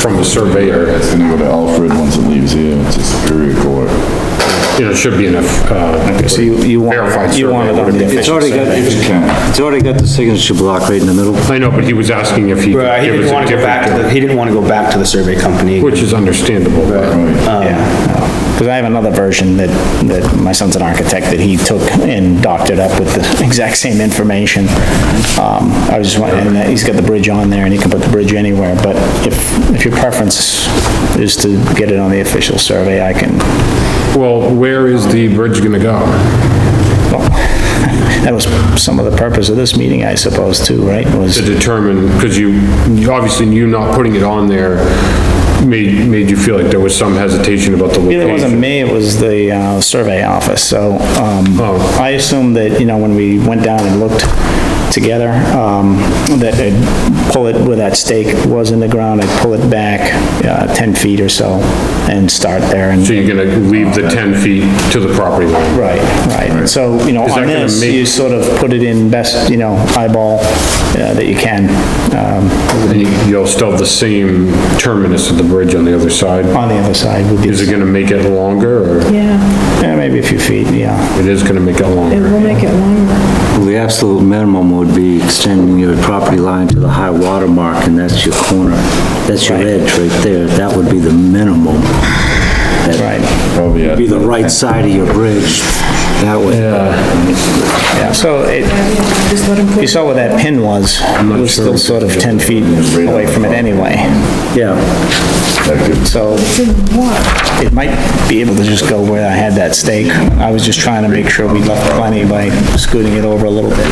from a surveyor, It's gonna go to Alfred once it leaves here, it's a Superior Court. you know, it should be enough, uh, So you, you Verified want, you want it survey on would be the efficient It's already got, survey. Yeah. it's already got the signature block right in the middle. I know, but he was asking if he could Right, he give us didn't a wanna go back to different, the, he didn't wanna go back to the Uh. survey company. Um, which is understandable, but Right. Because I have another version that, that my son's an architect, that he took and doctored up with the exact same information. Um, I was just, wa- and that- he's got the bridge on there, and he can put the bridge anywhere, but if, if your preference is to get it on the official survey, I can, Well, where is the bridge gonna go? well, that was some of the purpose of this meeting, I suppose, too, right? Was, To determine, because you, you- obviously you not putting it on there made, made you feel like there was some hesitation about the it wasn't location. me, it was the, uh, survey office, so, um, Oh. I assumed that, you know, when we went down and looked together, um, that I'd pull it where that stake was in the ground, I'd pull it back, uh, ten feet or so and start there and, So you're gonna leave the 10 feet to the property line? right, right. So, you know, that on gonna this, make- you sort of put it in best, you know, eyeball, uh, that you can, um, And you- you'll still have the same terminus of the bridge on the other side? on the other side would be, Is it gonna make it longer, or Yeah, yeah, maybe a few feet, yeah. it is gonna make it it longer? will make it longer. Well, The absolute minimum would be extending your property line to the high water mark, and that's your corner. That's your edge right there. That would be the minimum. That Right. Oh, Probably at would Be the right side of your bridge. That would, Yeah, so it, Just let 'em put you saw where that pin was, it was still sort of 10 feet away from it anyway. yeah. So it might be able to just go where I had that stake. I was just trying to make sure we left plenty by scooting it over a little bit.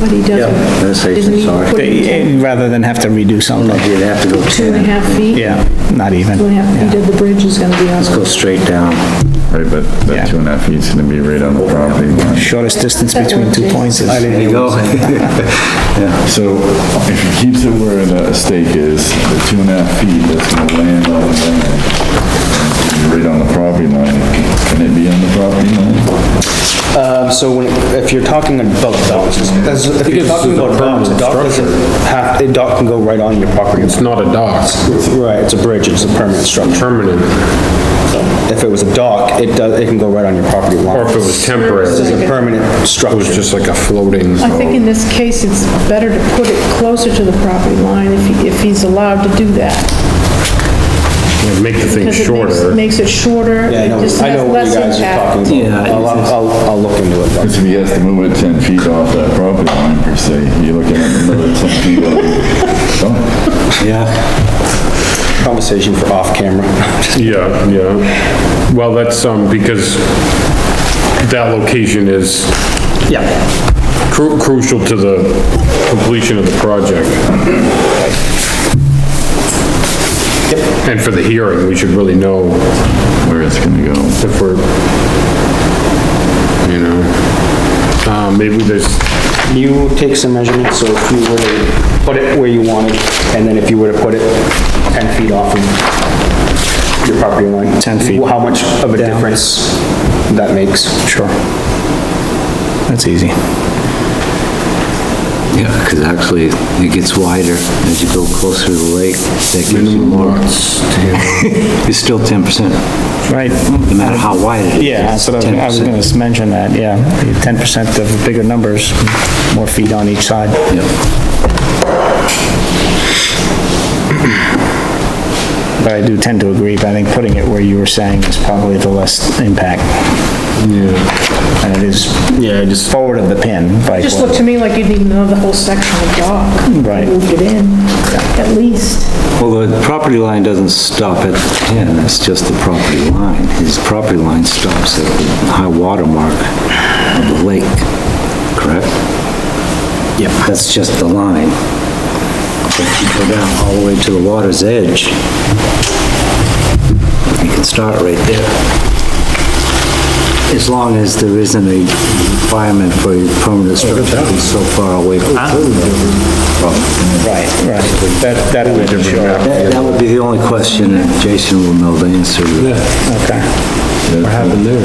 But he Yeah, doesn't, that's safe, doesn't he sorry. put it Eh, Rather than have to redo something like, You'd have to go two and a half feet? yeah, not even. Two and a half feet of the bridge is gonna be on. go straight down. Right, but Yeah. that two and a half feet's gonna be right on the property line. Shortest distance between two points is, There you go. So if he keeps it where the stake is, the two and a half feet that's gonna land on the land, right on the property line, can it be on the property line? Uh, so when, if you're talking about docks, as- if you're Because this talking is a about docks, a permanent dock doesn't have, a dock can go right on your property. It's Not a dock, Right, it's a bridge, it's a permanent structure. permanent, If it was a dock, it does, it can go right on your property line. or if it was temporary, This is it a permanent was structure. just like a floating. I think in this case, it's better to put it closer to the property line if, he- if he's allowed to do that. Make the thing Because it makes- shorter. Makes it shorter, Yeah, I know, it just I know has what you less guys are impact. talking about. Yeah, I'll, I'll, I'll look into it. though. Because if he has to move it ten feet off that property line per se, you're looking at another ten feet of, oh. Yeah. Conversation for off camera. Yeah, yeah. Well, that's, um, because that location is Yeah. cru- crucial to the completion of the project. And for the hearing, we should really know where it's gonna go. if we're, you know, uh, maybe there's, You take some measurements, so if you were to put it where you wanted, and then if you were to put it 10 feet off of your property line. 10 feet. How much of a difference that makes. sure. That's easy. Yeah, because actually it gets wider as you go closer to the lake. That gives you more. It's still 10%, Right. Uh, no matter how wide it is. Yeah, so that- I was 10%. gonna s- mention that, yeah. Ten percent of bigger numbers, more feet on each side. But I do tend to agree, but I think putting it where you were saying is probably the less impact. And it is. Yeah, just. Forward of the pin, like, Just looked to me like you'd need another whole section of dock. Right. Moved it in, at least. Well, the property line doesn't stop at the 10, it's just the property line. His property line stops at the high water mark of the lake, correct? Yeah. That's just the line. But if you go down all the way to the water's edge, you can start right there. As long as there isn't a requirement for a permanent structure to be so far away from right, right. That, that would be sure. That that would be the only question, and Jason will know the answer. Okay. what happened there?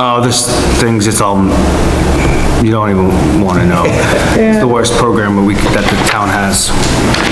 Oh, this thing's, it's all you don't even wanna know. It's the worst program that we, could- that the town has.